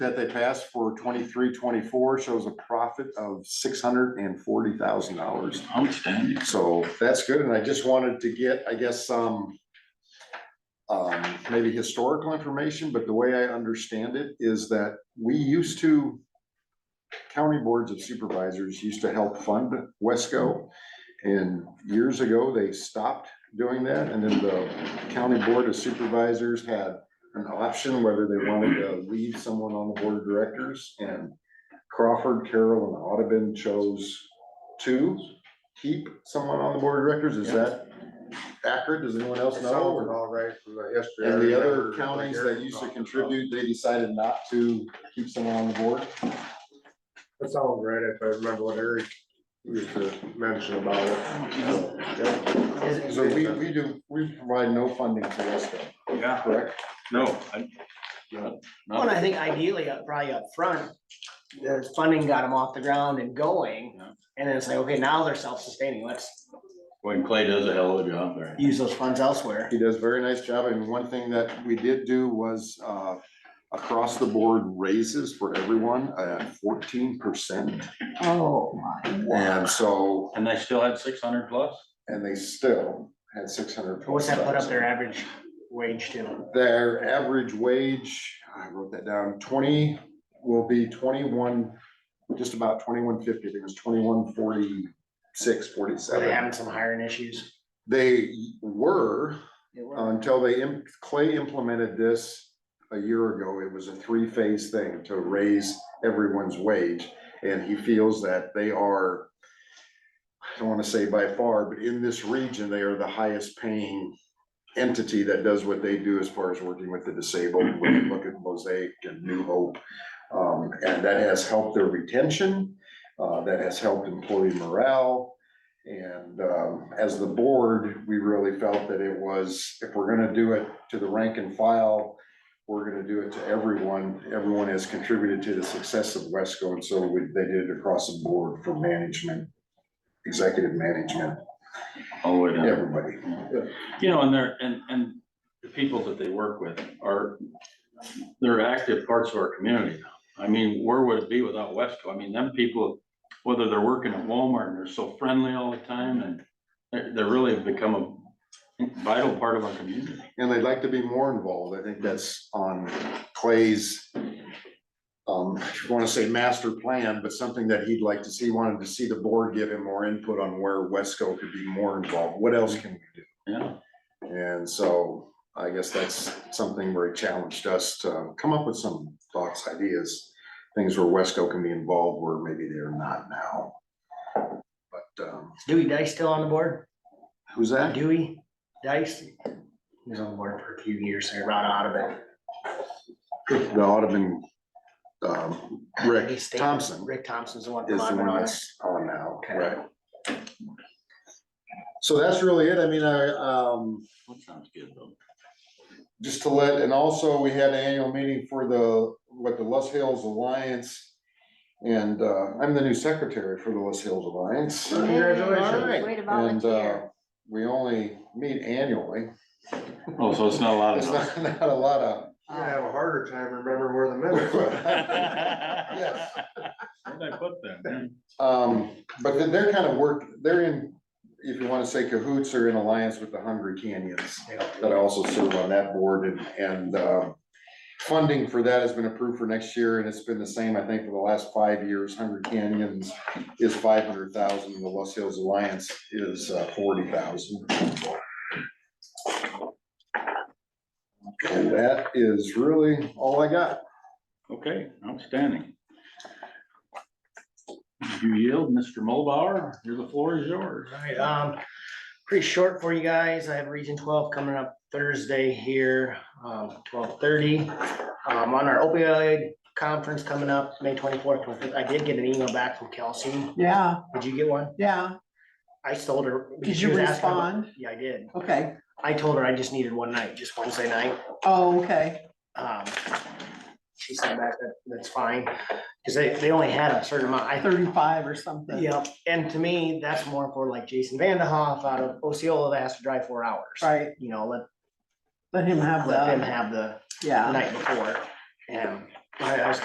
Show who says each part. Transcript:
Speaker 1: that they passed for 23-24 shows a profit of six hundred and forty thousand dollars.
Speaker 2: Outstanding.
Speaker 1: So that's good, and I just wanted to get, I guess, some um, maybe historical information, but the way I understand it is that we used to county boards of supervisors used to help fund Wesco. And years ago, they stopped doing that, and then the county board of supervisors had an option whether they wanted to leave someone on the board of directors. And Crawford, Carroll, and Audubon chose to keep someone on the board of directors. Is that accurate? Does anyone else
Speaker 3: It
Speaker 1: know?
Speaker 3: sounds
Speaker 1: or-
Speaker 3: about right from the history. I
Speaker 1: and the other
Speaker 3: remember, like,
Speaker 1: counties that
Speaker 3: Eric
Speaker 1: used to
Speaker 3: talked about.
Speaker 1: contribute, they decided not to keep someone on the board.
Speaker 3: That sounds right, if I remember what Eric used to mention about it.
Speaker 1: So we, we do, we provide no funding to Wesco,
Speaker 2: Yeah,
Speaker 1: correct?
Speaker 2: no, I,
Speaker 4: Well, and I think ideally, uh, probably up front, the funding got them off the ground and going.
Speaker 2: Yeah.
Speaker 4: And then it's like, okay, now they're self-sustaining, let's
Speaker 2: when Clay does a hell of a job there.
Speaker 4: use those funds elsewhere.
Speaker 1: He does a very nice job, and one thing that we did do was, uh, across the board raises for everyone, at fourteen percent.
Speaker 4: Oh.
Speaker 1: And so,
Speaker 2: And they still had six hundred plus?
Speaker 1: and they still had six hundred.
Speaker 4: What's that put up their average wage to?
Speaker 1: Their average wage, I wrote that down, twenty will be twenty-one, just about twenty-one fifty, I think it was twenty-one forty-six,
Speaker 4: Are they
Speaker 1: forty-seven.
Speaker 4: having some hiring issues?
Speaker 1: They were,
Speaker 4: They were.
Speaker 1: Uh, until they, im- Clay implemented this a year ago, it was a three-phase thing to raise everyone's wage. And he feels that they are, I don't wanna say by far, but in this region, they are the highest paying entity that does what they do as far as working with the disabled, when you look at Mosaic and New Hope. Um, and that has helped their retention, uh, that has helped employee morale. And, um, as the board, we really felt that it was, if we're gonna do it to the rank and file, we're gonna do it to everyone. Everyone has contributed to the success of Wesco, and so we, they did it across the board from management, executive management,
Speaker 2: All the way down.
Speaker 1: everybody.
Speaker 2: You know, and they're, and, and the people that they work with are, they're active parts of our community now. I mean, where would it be without Wesco? I mean, them people, whether they're working at Walmart and they're so friendly all the time and they're, they really have become a vital part of our community.
Speaker 1: And they'd like to be more involved. I think that's on Clay's, um, I want to say master plan, but something that he'd like to see, He wanted to see the board give him more input on where Wesco could be more involved. What else can we do?
Speaker 2: Yeah,
Speaker 1: And so I guess that's something where he challenged us to come up with some thoughts, ideas, things where Wesco can be involved where maybe they're not now. But, um,
Speaker 4: Dewey Dice still on the board?
Speaker 1: who's that?
Speaker 4: Dewey Dice? He was on the board for a few years, there, right out of it.
Speaker 1: The Audubon, um, Rick
Speaker 4: He's staying-
Speaker 1: Thompson.
Speaker 4: Rick Thompson's the one from
Speaker 1: is the
Speaker 4: Auburn
Speaker 1: one
Speaker 4: on it.
Speaker 1: that's on now,
Speaker 4: Okay.
Speaker 1: right? So that's really it. I mean, I, um,
Speaker 2: that sounds good though.
Speaker 1: just to let, and also we had an annual meeting for the, what the Les Hills Alliance. And, uh, I'm the new secretary for the Les Hills Alliance.
Speaker 3: Congratulations.
Speaker 5: Way to
Speaker 1: And, uh,
Speaker 5: volunteer.
Speaker 1: we only meet annually.
Speaker 2: Oh, so it's not a lot
Speaker 1: It's
Speaker 2: of.
Speaker 1: not, not a lot of.
Speaker 3: I have a harder time remembering where the minutes were.
Speaker 1: Yes.
Speaker 2: Where'd I put that?
Speaker 1: Um, but then they're kind of work, they're in, if you wanna say cahoots, are in alliance with the Hungry Canyons. That I also serve on that board and, and, uh, funding for that has been approved for next year and it's been the same, I think, for the last five years. Hungry Canyons is five hundred thousand, the Los Hills Alliance is uh, forty thousand. And that is really all I got.
Speaker 2: Okay, outstanding. You yield, Mr. Mulbauer, your, the floor is yours.
Speaker 4: Alright, um, pretty short for you guys. I have Region twelve coming up Thursday here, um, twelve thirty. Um, on our opioid conference coming up, May twenty-fourth, I did get an email back from Kelsey.
Speaker 6: Yeah,
Speaker 4: Did you get one?
Speaker 6: yeah.
Speaker 4: I told her.
Speaker 6: Did
Speaker 4: she
Speaker 6: you
Speaker 4: was asking about-
Speaker 6: respond?
Speaker 4: Yeah, I did.
Speaker 6: Okay.
Speaker 4: I told her I just needed one night, just Wednesday night.
Speaker 6: Oh, okay.
Speaker 4: Um, she said that, that- that's fine, cause they, they only had a certain amount. I think
Speaker 6: Thirty-five or something.
Speaker 4: Yeah, and to me, that's more for like Jason Vanderhoff out of Osceola that has to drive four hours.
Speaker 6: Right.
Speaker 4: You know, let,
Speaker 6: Let him have
Speaker 4: let them
Speaker 6: that.
Speaker 4: have the
Speaker 6: Yeah.
Speaker 4: night before. And I I was